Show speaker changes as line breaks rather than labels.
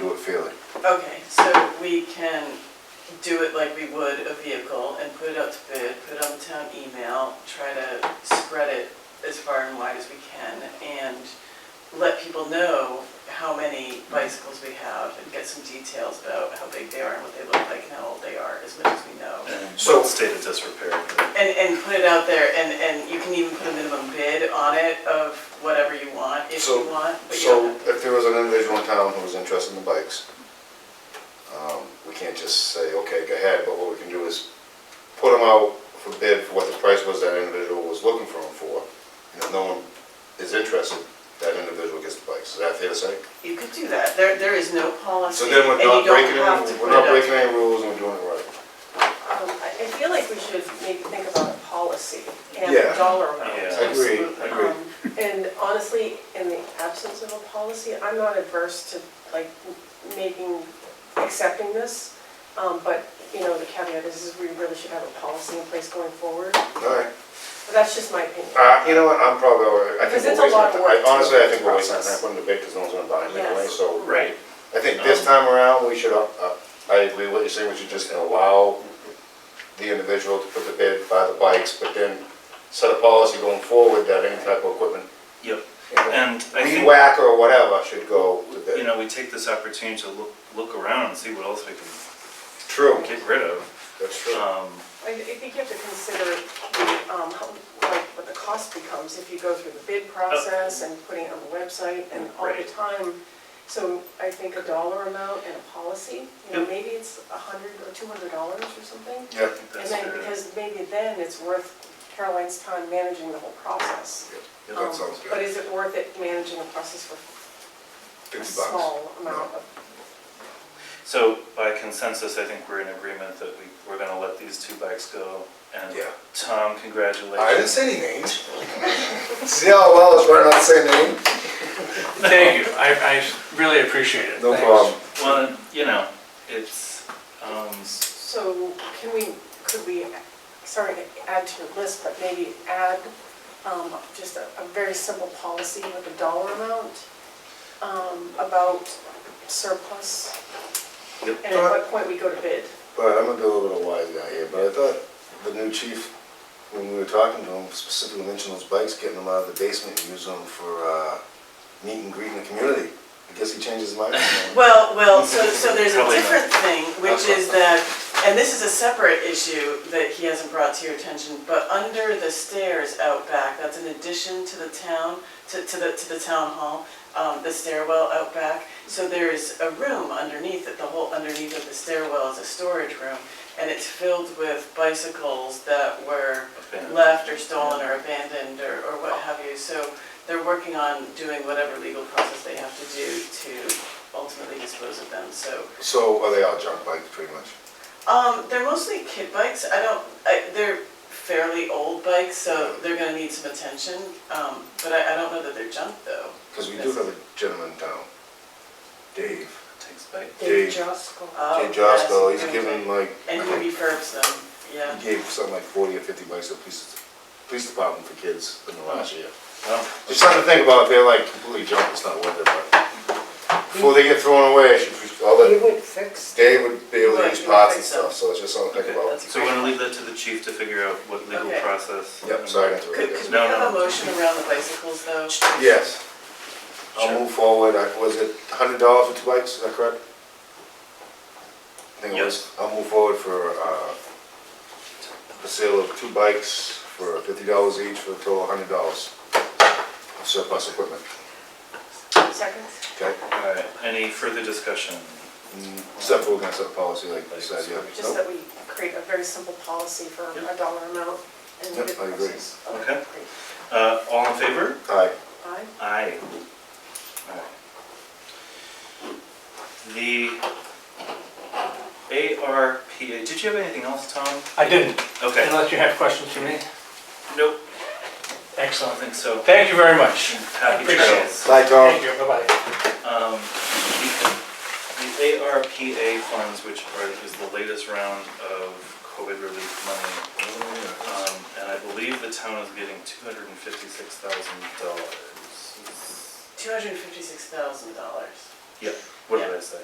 feel it.
Okay, so we can do it like we would a vehicle and put it out to bid, put it on the town email, try to spread it as far and wide as we can and let people know how many bicycles we have and get some details about how big they are and what they look like and how old they are, as much as we know.
So-
So state of disrepair.
And, and put it out there, and, and you can even put a minimum bid on it of whatever you want, if you
So-
want, but you
So
don't have.
if there was an individual in town who was interested in the bikes, um, we can't just say, okay, go ahead, but what we can do is put them out for bid for what the price was that individual was looking for them for. And if no one is interested, that individual gets the bikes. Is that fair to say?
You could do that, there, there is no policy,
So
and
then we're
you
not
don't
breaking
have to
any,
put
we're
it out
not
there.
breaking any rules and we're doing it right.
Um, I I feel like we should maybe think about a policy and
Yeah.
a dollar amount.
Yeah.
Agree,
Absolutely.
agree.
Um, And honestly, in the absence of a policy, I'm not adverse to like m- making, accepting this. Um, But, you know, the caveat is, is we really should have a policy in place going forward.
All right.
But that's just my opinion.
Uh, you know what, I'm probably, all right. I think
Because it's
we're
a lot of
wasting, I-
work to
honestly, I think we're wasting
process.
time putting the bid because no one's gonna buy them
Yes.
anyway, so.
Right.
I think this time around, we should, uh, uh, I agree with what you're saying, we should just allow the individual to put the bid, buy the bikes, but then set a policy going forward that any type of equipment,
Yep.
you know,
And I
weed
think,
whacker or whatever should go to
you
bid.
know, we take this opportunity to look, look around and see what else we can
True,
get rid of.
that's true.
Um,
I I think you have to consider the, um, how- like, what the cost becomes if you go through the bid process and putting it on the website and all the
Right.
time. So I think a dollar amount and a policy, you know,
Yep.
maybe it's a hundred or two hundred dollars or something.
Yeah,
I think
And
that's
then,
fair.
because maybe then it's worth Caroline's time managing the whole process.
yeah,
Um,
that sounds
But
good.
is it worth it managing the process for a
Fifty bucks.
small amount of?
So by consensus, I think we're in agreement that we, we're gonna let these two bikes go. And
Yeah.
Tom, congratulations.
I didn't say any names. See how well it's right not to say name?
Thank you, I, I really appreciate it.
No
Thanks.
problem.
Well, you know, it's, um,
So can we, could we, sorry to add to your list, but maybe add um, just a a very simple policy with a dollar amount um, about surplus?
Yep.
And
Uh,
at what point we go to bid?
But I'm gonna be a little bit of a wise guy here, but I thought the new chief, when we were talking to him, specifically mentioned those bikes, getting them out of the basement and use them for, uh, meet and greet in the community. I guess he changed his mind.
Well, well, so, so there's a
Probably not.
different thing, which is that, and this is a separate issue that he hasn't brought to your attention, but under the stairs out back, that's an addition to the town, to, to the, to the town hall, um, the stairwell out back. So there is a room underneath it, the whole underneath of the stairwell is a storage room, and it's filled with bicycles that were
Abandoned.
left or stolen or abandoned or, or what have you. So they're working on doing whatever legal process they have to do to ultimately dispose of them, so.
So are they all junk bikes, pretty much?
Um, they're mostly kid bikes, I don't, I, they're fairly old bikes, so they're gonna need some attention. Um, but I, I don't know that they're junk though.
Because we do have a gentleman in town, Dave.
takes bike.
Dave.
Oh,
Jay Josco,
yes,
he's
okay.
given like,
And
I
he
think
refurbs them, yeah.
he gave something like forty or fifty bikes to the police, police department for kids in the
Oh.
last year.
Well,
Just something to think about, if they're like completely junk, it's not worth it, but before they get thrown away, I should, all the
You would fix,
They would be able to
Right,
use
you
pots and
would think so.
stuff, so it's just something to think
Okay,
about.
that's
So we're gonna leave that to the chief to figure out what legal
Okay.
process.
Yep, sorry to
Could,
interrupt
could
you.
we
No,
have a
no.
motion around the bicycles though?
Yes.
Sure.
I'll move forward, I, was it hundred dollars for two bikes, is that correct? I think it was, I'll move forward for, uh, the sale of two bikes for fifty dollars each for a total of hundred dollars. Surplus equipment,
Seconds?
okay?
All right, any further discussion?
Mm, Except for we're gonna set a policy like you said, yeah.
Just
Nope.
that we create a very simple policy for
Yep.
a dollar amount and
Yep,
bid
I agree.
process.
Okay.
great.
Uh, all in favor?
Alright,
Aye.
Aye. All right. The ARPA, did you have anything else, Tom?
I didn't,
Okay,
unless you have questions for me.
nope, I
Excellent.
don't think so.
Thank you very much.
Happy
Appreciate it.
trails.
bye Tom.
Thank you, bye-bye.
Um, The the ARPA funds, which are, is the latest round of COVID relief money, um, and I believe the town is getting two hundred and fifty-six thousand dollars.
Two hundred and fifty-six thousand dollars.
What did I say?